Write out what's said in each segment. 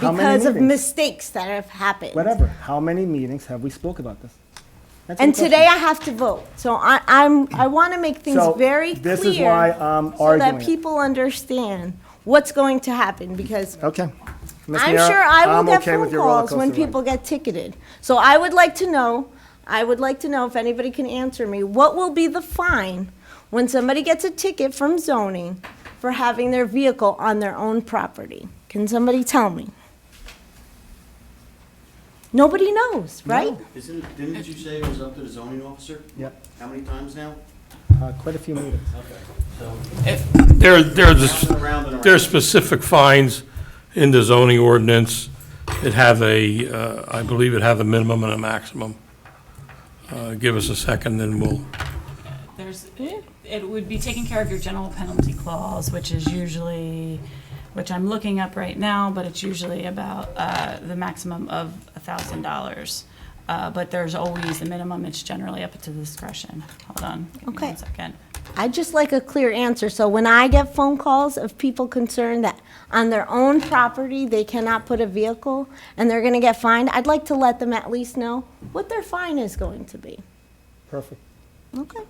How many because of meetings? mistakes that have happened. Whatever. How many meetings have we spoke about this? That's And the question. today I have to vote, so I, I'm, I want to make things So, very clear. this is why I'm So arguing that it. people understand what's going to happen, because Okay. Ms. I'm Miera, sure I will I'm get okay phone with your roller calls when coaster ride. people get ticketed. So I would like to know, I would like to know if anybody can answer me, what will be the fine when somebody gets a ticket from zoning for having their vehicle on their own property? Can somebody tell me? Nobody knows, right? Isn't, it- didn't you say it was up to the zoning officer? Yep. How many times now? Uh, quite a few meetings. There, there's, Round and round and there's specific fines in the zoning ordinance that have a, uh, I believe it have a minimum and a maximum. Uh, Give us a second, then we'll, There's, it would be taking care of your general penalty clause, which is usually, which I'm looking up right now, but it's usually about uh, the maximum of a thousand dollars. Uh, But there's always a minimum, it's generally up to the discretion. Hold on, give me Okay. one second. I'd just like a clear answer, so when I get phone calls of people concerned that on their own property, they cannot put a vehicle, and they're gonna get fined, I'd like to let them at least know what their fine is going to be. Perfect. Okay.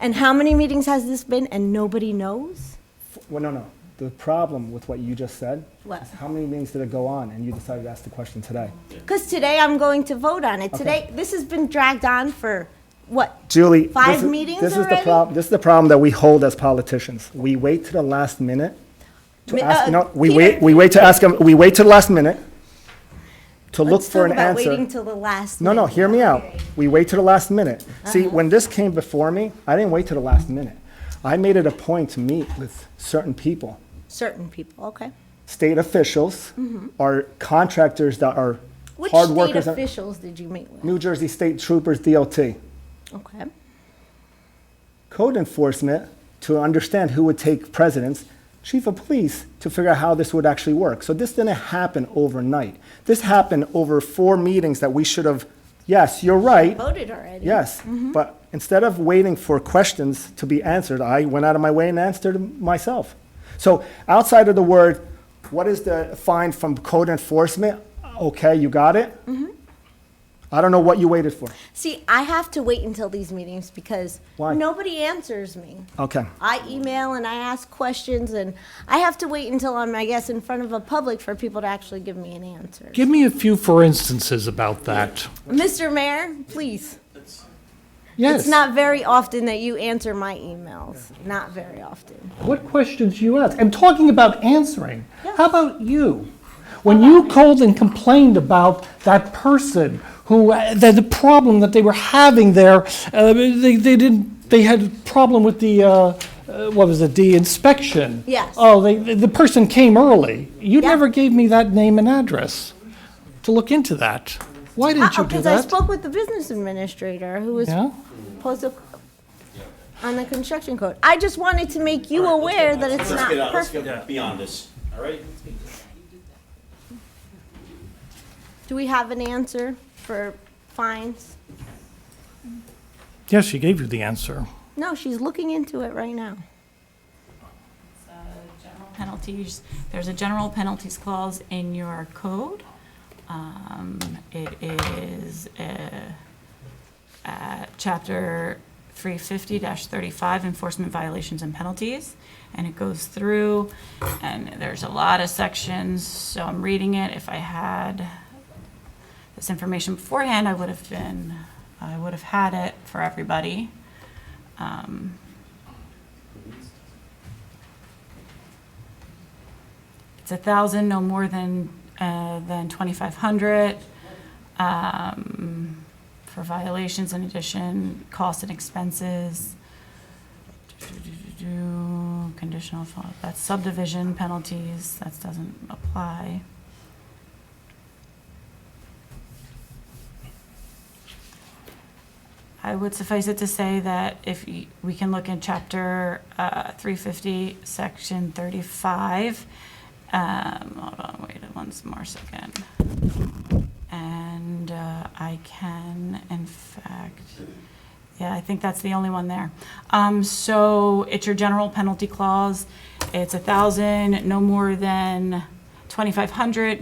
And how many meetings has this been, and nobody knows? F- Well, no, no. The problem with what you just said What? is how many meetings did it go on, and you decided to ask the question today. Because today I'm going to vote on it. Today, this has been dragged on for, what, Julie, this Five is- meetings this is the already? problem. This is the problem that we hold as politicians. We wait to the last minute to Mi- ask. uh, no, we Peter- wait. We wait to ask them. We wait to the last minute to look let's for talk an about answer. waiting till the last No, no, minute. hear me out. We wait to the last minute. See, Uh-huh. when this came before me, I didn't wait to the last minute. I made it a point to meet with certain people, Certain people, okay. state officials, or contractors that are Mm-hmm. Which hard state workers. officials did you meet with? New Jersey State Troopers, DLT, Okay. code enforcement to understand who would take precedence, chief of police to figure out how this would actually work. So this didn't happen overnight. This happened over four meetings that we should have. Yes, you're right. Voted already. Yes, but instead of waiting for questions to be answered, I went out of my way and answered them myself. So outside of the word, what is the fine from code enforcement? Okay, you got it? I don't know what you waited for. See, I have to wait until these meetings because Why? nobody answers me. Okay, I email and I ask questions, and I have to wait until I'm, I guess, in front of a public for people to actually give me an answer. Give me a few for instances about that. Mr. Mayor, please. Yes. It's not very often that you answer my emails. Not very often. What questions you ask? I'm talking about answering. How about you? When you called and complained about that person who, uh, the, the problem that they were having there, uh, they, they didn't, they had a problem with the, uh, uh, what was it, the inspection? Yes. Oh, they, the the person came early. You Yeah. never gave me that name and address to look into that. Why didn't you do Because Uh, oh, I that? spoke with the business administrator who was Yeah? supposed to, on the construction code. I just wanted to make you aware that it's Let's get not out, let's perfect. get beyond this, all right? Do we have an answer for fines? Yes, she gave you the answer. No, she's looking into it right now. uh, general penalties, there's a general penalties clause in your code. Um, It is uh, uh, Chapter 350-35, Enforcement Violations and Penalties, and it goes through, and there's a lot of sections, so I'm reading it. If I had this information beforehand, I would have been, I would have had it for everybody. Um, it's a thousand, no more than, uh, than twenty-five hundred. Um, for violations in addition, costs and expenses. Do-do-do-do-do, Conditional, fault. that's subdivision penalties, that doesn't apply. I would suffice it to say that if y- we can look in chapter uh, 350, section 35. um, Hold on, wait one more second. And uh, I can, in fact, yeah, I think that's the only one there. Um, So it's your general penalty clause. It's a 1,000, no more than 2,500